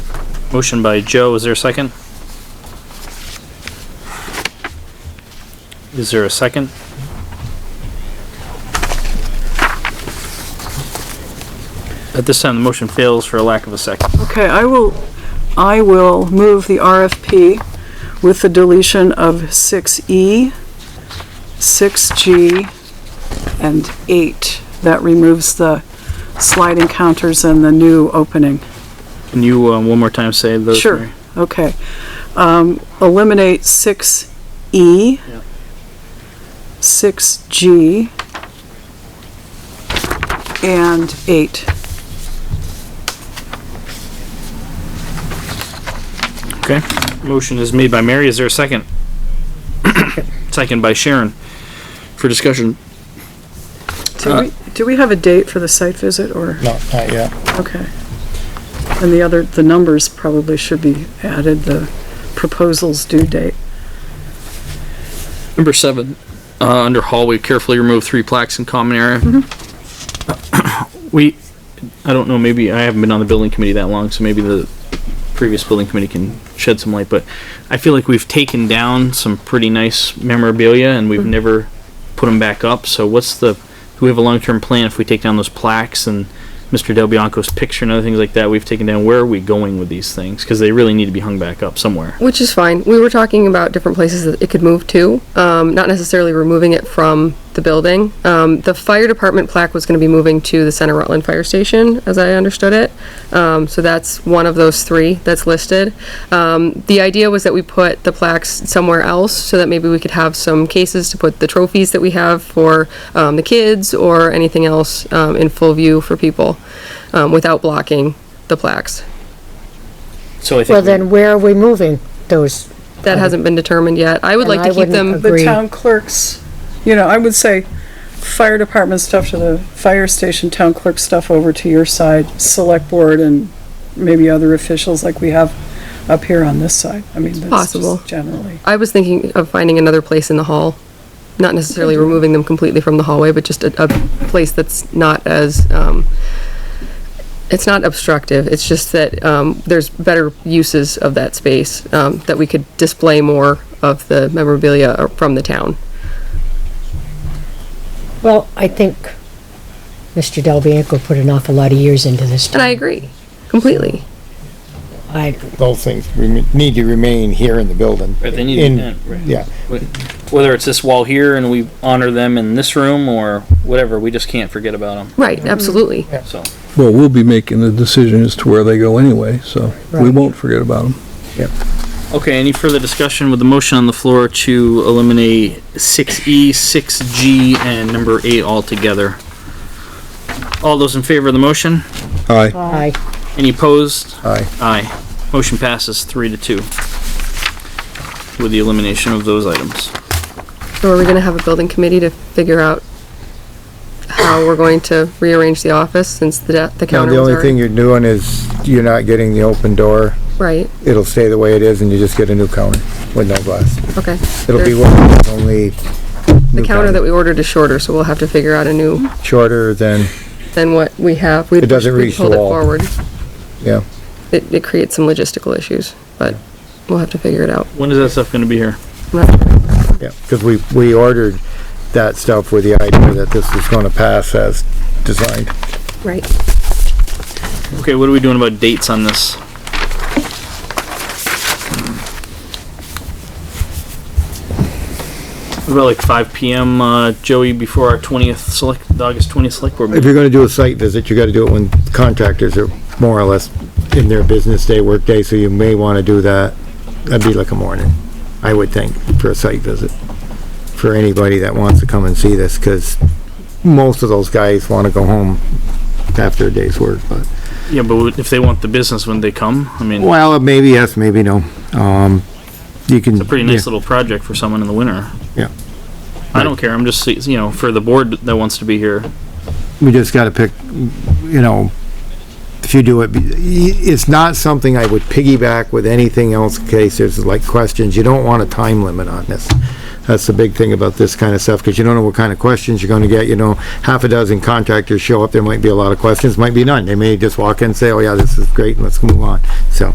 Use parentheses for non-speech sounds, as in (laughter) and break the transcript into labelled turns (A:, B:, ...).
A: Motion by Joe, is there a second? Is there a second? At this time, the motion fails for a lack of a second.
B: Okay, I will, I will move the RFP with the deletion of E, 6E, 6G, and 8. That removes the sliding counters and the new opening.
A: Can you, um, one more time say those?
B: Sure.
A: Mary?
B: Okay. Um, eliminate six E,
A: Yeah.
B: six G, and eight.
A: Okay, motion is made by Mary, is there a second? (coughs) Second by Sharon, for discussion.
B: Do we, do we have a date for the site visit or,
C: No, Uh, not yet.
B: okay. And the other, the numbers probably should be added, the proposal's due date.
A: Number seven, uh, under hallway, carefully remove three plaques in common area. (clears throat) We, I don't know, maybe, I haven't been on the building committee that long, so maybe the previous building committee can shed some light, but I feel like we've taken down some pretty nice memorabilia and we've never put them back up, so what's the, do we have a long-term plan if we take down those plaques and Mr. Del Bianco's picture and other things like that we've taken down, where are we going with these things? Cause they really need to be hung back up somewhere.
D: Which is fine. We were talking about different places that it could move to, um, not necessarily removing it from the building. Um, the fire department plaque was gonna be moving to the Center Rutland Fire Station, as I understood it. Um, so that's one of those three that's listed. Um, the idea was that we put the plaques somewhere else, so that maybe we could have some cases to put the trophies that we have for, um, the kids or anything else, um, in full view for people, um, without blocking the plaques.
A: So I think.
E: Well,
A: we-
E: then where are we moving those?
D: That hasn't been determined yet. I would
E: And
D: like
E: I
D: to keep
E: wouldn't
D: them.
E: ag-
B: The
E: Agree.
B: town clerks, you know, I would say fire department stuff to the fire station, town clerk stuff over to your side, select board and maybe other officials like we have up here on this side. I mean, that's
D: possible.
B: just generally.
D: I was thinking of finding another place in the hall, not necessarily removing them completely from the hallway, but just a, a place that's not as, um, it's not obstructive, it's just that, um, there's better uses of that space, um, that we could display more of the memorabilia uh, from the town.
E: Well, I think Mr. Del Bianco put an awful lot of years into this.
D: And I
E: town.
D: agree, completely.
E: I,
C: Those things rem- need to remain here in the building.
A: Right, they need to
C: In-
A: be in, right.
C: Yeah,
A: whether it's this wall here and we honor them in this room or whatever, we just can't forget about them.
D: Right, absolutely.
A: So,
F: Well, we'll be making the decision as to where they go anyway, so we
E: Right.
F: won't forget about them.
A: okay, any further discussion with the motion on the floor to eliminate six E, six G, and number eight altogether? All those in favor of the motion?
F: Aye.
E: I,
A: Any opposed?
F: Aye.
A: Aye. Motion passes three to two with the elimination of those items.
D: So are we gonna have a building committee to figure out how we're going to rearrange the office since the, de- the
C: now
D: counter
C: the
D: was
C: only thing
D: already?
C: you're doing is you're not getting the open door.
D: Right,
C: It'll stay the way it is and you just get a new counter with no glass.
D: okay.
C: It'll be
D: There's-
C: one that's only.
D: The counter that we ordered is shorter, so we'll have to figure out a new,
C: Shorter than,
D: than what we have. We'd-
C: It doesn't
D: we'd
C: reach the
D: Hold it
C: wall.
D: forward.
C: yeah,
D: It, it creates some logistical issues, but we'll have to figure it out.
A: When is that stuff gonna be here?
D: I'm not sure.
C: yeah, cause we, we ordered that stuff with the idea that this was gonna pass as designed.
D: Right.
A: Okay, what are we doing about dates on this? What About like five PM, uh, Joey, before our twentieth select, the August twentieth select board
C: If
A: meeting.
C: you're gonna do a site visit, you gotta do it when contractors are more or less in their business day, work day, so you may wanna do that. That'd be like a morning, I would think, for a site visit, for anybody that wants to come and see this, cause most of those guys wanna go home after a day's work, but.
A: Yeah, but if they want the business when they come, I mean, it's
C: Well, maybe yes, maybe no, um, you can.
A: a pretty nice little project for someone in the winter.
C: Yeah.
A: I don't care, I'm just, see- you know, for the board that wants to be here.
C: we just gotta pick, you know, if you do it, it's not something I would piggyback with anything else in case there's like questions. You don't want a time limit on this. That's the big thing about this kind of stuff, because you don't know what kind of questions you're gonna get, you know, half a dozen contractors show up, there might be a lot of questions, might be none. They may just walk in and say, oh yeah, this is great, and let's move on, so.